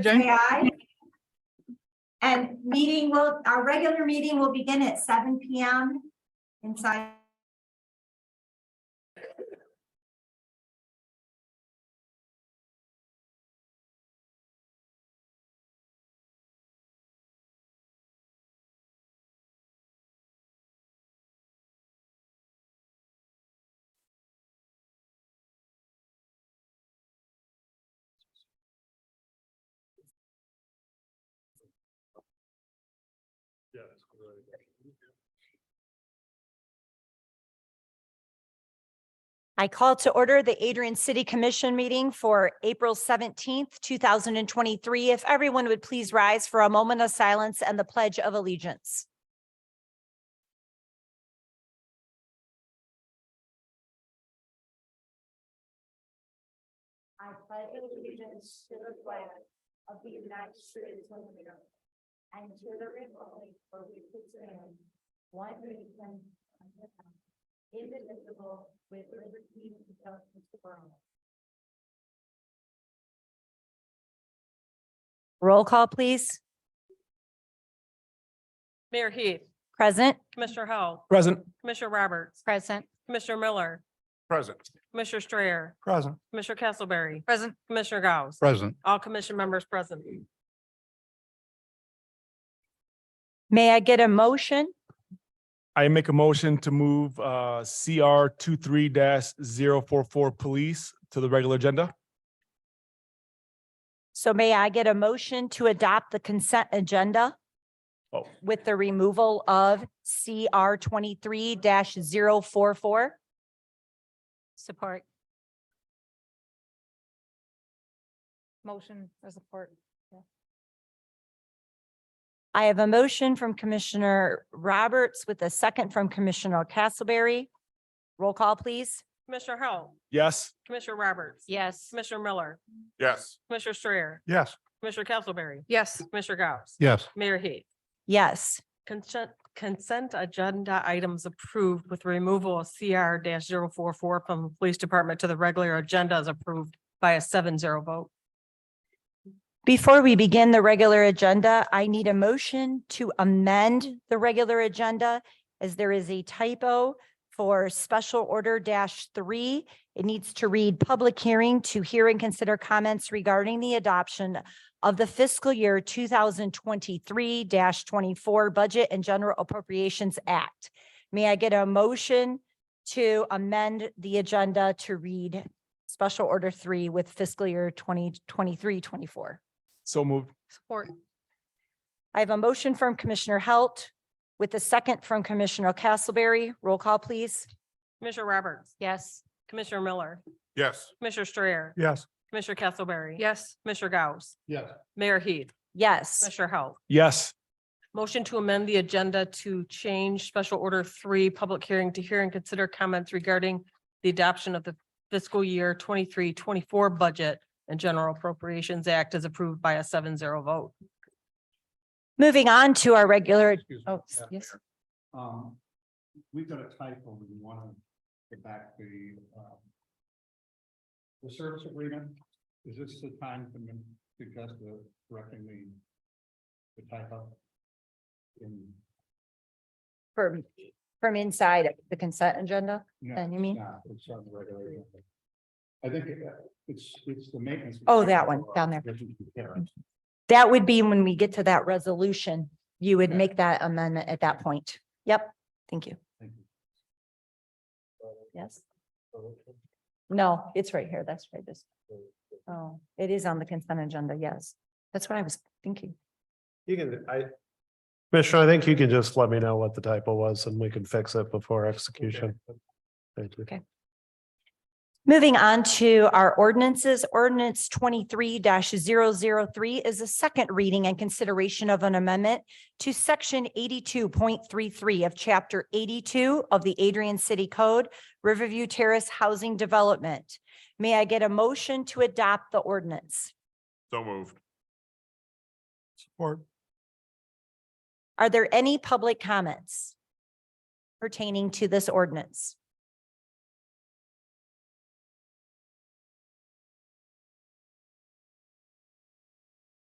Say aye. And meeting will, our regular meeting will begin at seven P M inside. I call to order the Adrian City Commission meeting for April seventeenth, two thousand and twenty-three. If everyone would please rise for a moment of silence and the pledge of allegiance. I pledge allegiance to the flag of the United States of America and to the republic for which it stands, one nation under God, indivisible, with liberty and justice for all. Roll call, please. Mayor Heath, Present. Commissioner Howell, Present. Commissioner Roberts, Present. Commissioner Miller, Present. Commissioner Strayer, Present. Commissioner Castleberry, Present. Commissioner Gauss, Present. all commission members present. May I get a motion? I make a motion to move uh CR 23 44 police to the regular agenda. So may I get a motion to adopt the consent agenda Oh, with the removal of CR twenty-three 44 Support. Motion or support. I have a motion from Commissioner Roberts with a second from Commissioner Castleberry. Roll call, please. Commissioner Howell, yes. Commissioner Roberts. Yes. Commissioner Miller, Yes. Commissioner Strayer, Yes. Commissioner Castleberry, Yes. Commissioner Gauss. Yes. Mayor Heath, Yes. consent, consent agenda items approved with removal of CR 44 from the Police Department to the regular agenda is approved by a seven zero vote. Before we begin the regular agenda, I need a motion to amend the regular agenda as there is a typo for special order dash three. It needs to read public hearing to hear and consider comments regarding the adoption of the fiscal year two thousand twenty-three twenty-four Budget and General Appropriations Act. May I get a motion to amend the agenda to read special order three with fiscal year 2023-24? So moved. Support. I have a motion from Commissioner Halt with a second from Commissioner Castleberry. Roll call, please. Commissioner Roberts, Yes. Commissioner Miller, Yes. Commissioner Strayer, Yes. Commissioner Castleberry. Yes. Commissioner Gauss, Yes. Mayor Heath, Yes. Commissioner Howell. Yes. Motion to amend the agenda to change special order three, public hearing to hear and consider comments regarding the adoption of the fiscal year 23-24 budget and general appropriations act as approved by a seven zero vote. Moving on to our regular, Excuse me, oh, Madam yes. Mayor. Um, we've got a typo in one of the back, the, um. The service agreement, is this the time to min- suggest the correcting the, the typo? In, From, from inside the consent agenda, no, then you mean? no, it's on the regular. agenda. I think it, uh, it's, it's the maintenance. Oh, that one, down there. Mm-hmm. That would be when we get to that resolution, you would Okay. make that amendment at that point. Yep, thank you. Yes. No, it's right here. That's right. This. Oh, it is on the consent agenda. Yes. That's what I was thinking. You can, I. Commissioner, I think you can just let me know what the typo was and we can fix it before execution. Thank you. Okay. Moving on to our ordinances, ordinance twenty-three 3 is a second reading and consideration of an amendment to section eighty-two point three-three of chapter eighty-two of the Adrian City Code, Riverview Terrace Housing Development. May I get a motion to adopt the ordinance? So moved. Support. Are there any public comments pertaining to this ordinance?